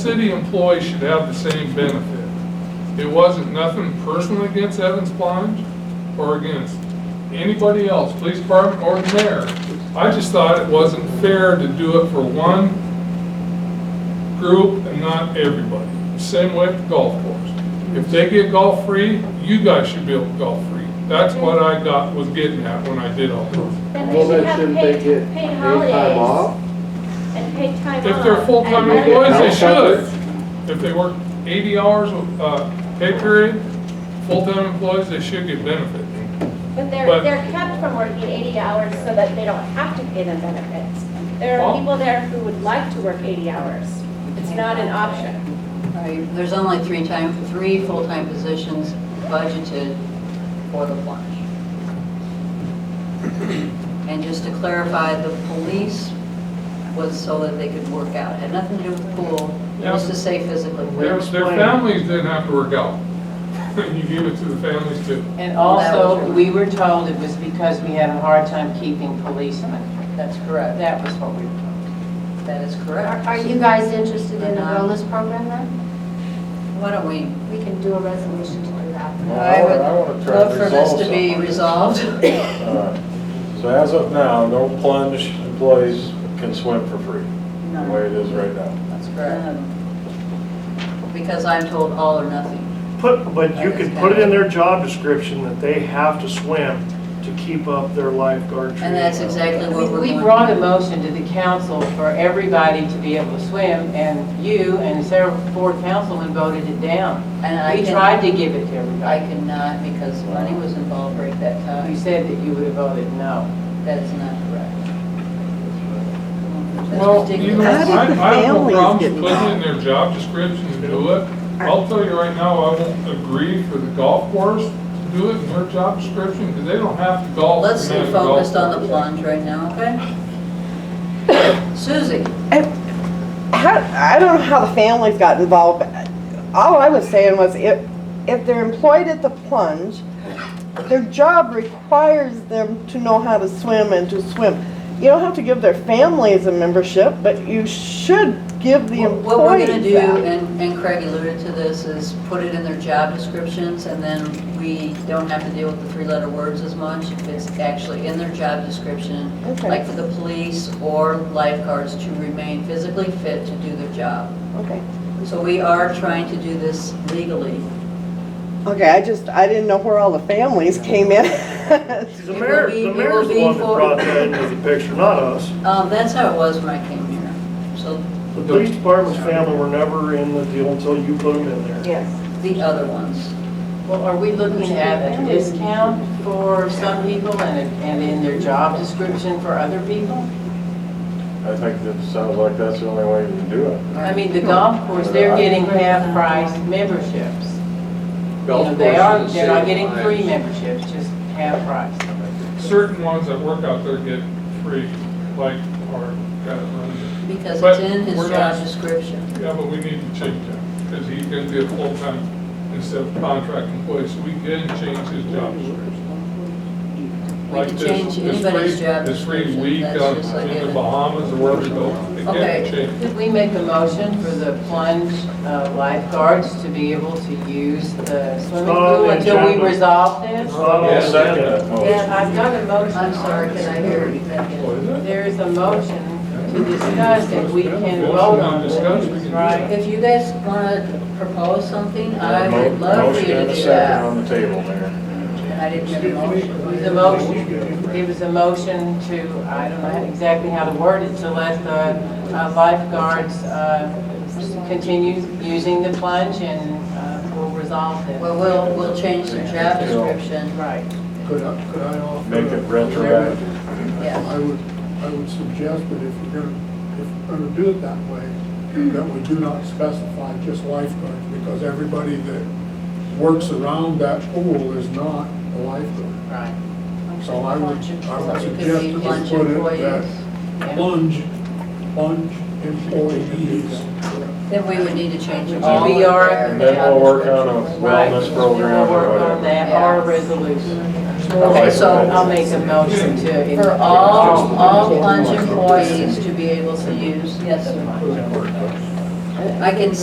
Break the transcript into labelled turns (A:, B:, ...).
A: City employees should have the same benefit. It wasn't nothing personal against Evans Plunge or against anybody else, police department or the mayor. I just thought it wasn't fair to do it for one group and not everybody. Same way with the golf course. If they get golf free, you guys should be able to golf free. That's what I got, was getting at when I did all this.
B: Then
C: Well,
B: they should
C: then
B: have
C: shouldn't they
B: paid, paid
C: get paid time
B: holidays
C: off?
B: and paid time off.
A: If they're
B: And
A: full-time
B: then-
A: employees, they
C: Yeah.
A: should. If they work eighty hours, uh, pay period, full-time employees, they should get benefit.
B: But they're,
A: but-
B: they're kept from working eighty hours so that they don't have to pay them benefits. There
A: Well-
B: are people there who would like to work eighty hours. It's not an option.
D: Right, there's only three time, three full-time positions budgeted for the plunge. And just to clarify, the police was so that they could work out, had nothing to do with the pool, just to say physically.
A: Their, their families didn't have to work out. You give it to the families too.
E: And
D: That
E: also,
D: was-
E: we were told it was because we had a hard time keeping policemen.
D: That's correct,
E: That was what we were told.
D: that is
F: Are
D: correct.
F: are you guys interested in a
D: Uh-huh.
F: wellness program then?
D: Why don't we,
F: We can do a resolution to do that.
C: Well,
D: I would
C: I wanna try to
D: love for this
C: resolve
D: to be
C: something.
D: resolved.
C: Alright. So as of now, no plunge employees can swim for free, the way it is right now.
D: That's correct. Because I'm told all or nothing.
G: Put, but you could put it in their job description that they have to swim to keep up their lifeguard training.
D: And that's exactly
E: We-
D: what we're
E: We
D: going.
E: brought a motion to the council for everybody to be able to swim, and you and several board councilmen voted it down.
D: And I
E: We
D: can-
E: tried to give it to
D: I
E: everybody.
D: could not because money was involved right that
E: You
D: time.
E: said that you would have voted no.
D: That is not correct.
A: Well,
D: That's
A: you know,
D: ridiculous.
A: I, I have no
H: families
A: problem
H: get
A: putting in their job description to do it. I'll tell you right now, I won't agree for the golf course to do it in their job description, because they don't have to golf.
D: Let's
A: and
D: stay
A: manage a golf
D: focused on the
A: course.
D: plunge right now, okay? Susie,
H: How, I don't know how the families got involved. but All I was saying was if, if they're employed at the plunge, their job requires them to know how to swim and to swim. You don't have to give their families a membership, but you should give the employees
D: what we're gonna do,
H: that.
D: and and Craig alluded to this, is put it in their job descriptions and then we don't have to deal with the three-letter words as much. If It's actually in their job description,
H: Okay.
D: like for the police or lifeguards to remain physically fit to do their job.
H: Okay,
D: So we are trying to do this legally.
H: okay, I just, I didn't know where all the families came in.
G: The mayor, the
D: It will be-
G: mayor's
D: it
G: the one that
D: will be for-
G: brought that into the picture, not us.
D: Um, that's how it was when I came here. So
G: The police department's family were never in the deal until you put them in there.
H: Yes.
D: the other ones,
E: Well, are we looking at a discount for some people and, a- and in their job description for other people?
C: I think that sounds like that's the only way you can do it.
E: I mean, the golf course, they're getting half-price memberships. You know, they are, they're not getting free memberships, just half-price.
A: Certain ones that work out there get free, like our guy that runs it.
D: because
A: But
D: it's in his
A: we're
D: job
A: not-
D: description.
A: Yeah, but we need to change that, because he's gonna be a full-time instead of contract employee, so we can change his job description.
D: We
A: Like
D: could
A: this-
D: change
A: this
D: anybody's
A: free-
D: job
A: This free
D: description,
A: week
D: that's
A: on-
D: just like
A: in the
D: it.
A: Bahamas or wherever you go, it can
E: Okay.
A: change.
E: Could we make a motion for the plunge uh, lifeguards to be able to use the swimming pool until we resolve this?
G: It's not on the
A: Yes, I
G: agenda.
C: Oh,
E: Yeah, I've got a motion.
D: I'm sorry, can I hear you? Thank
A: Oh,
D: you.
A: is it?
E: There is a motion to discuss if we can vote on this, right?
D: If you guys wanna propose something, I
C: Mo-
D: would love for you
C: Motion and
D: to
C: a
D: do
C: second
D: that.
C: on the table, Mayor.
D: And I didn't get a motion.
E: It was a motion, it was a motion to, I don't know exactly how to word it, to let the uh, lifeguards uh, continue using the plunge and uh, we'll resolve this.
D: Well, we'll, we'll change the job description,
E: Right.
I: Could I, could I offer?
C: Make it retroactive.
D: yeah.
I: I would, I would suggest that if we're gonna, if we're gonna do it that way, that we do not specify just lifeguards, because everybody that works around that pool is not a lifeguard.
E: Right.
I: So I would, I would
D: So it could be lunch
I: suggest that we put it
D: employees.
I: that
E: Yeah.
I: plunge, plunge employees.
D: Then we would need to change it.
E: All
D: We are.
E: in
C: And then we'll work on a
E: Right.
C: wellness
E: We'll
C: program or
E: work on
C: whatever.
E: that, or a resolution.
D: Okay, so
E: I'll make a motion to.
D: For all, all plunge employees to be able to use, yes, sir.
A: I
D: I can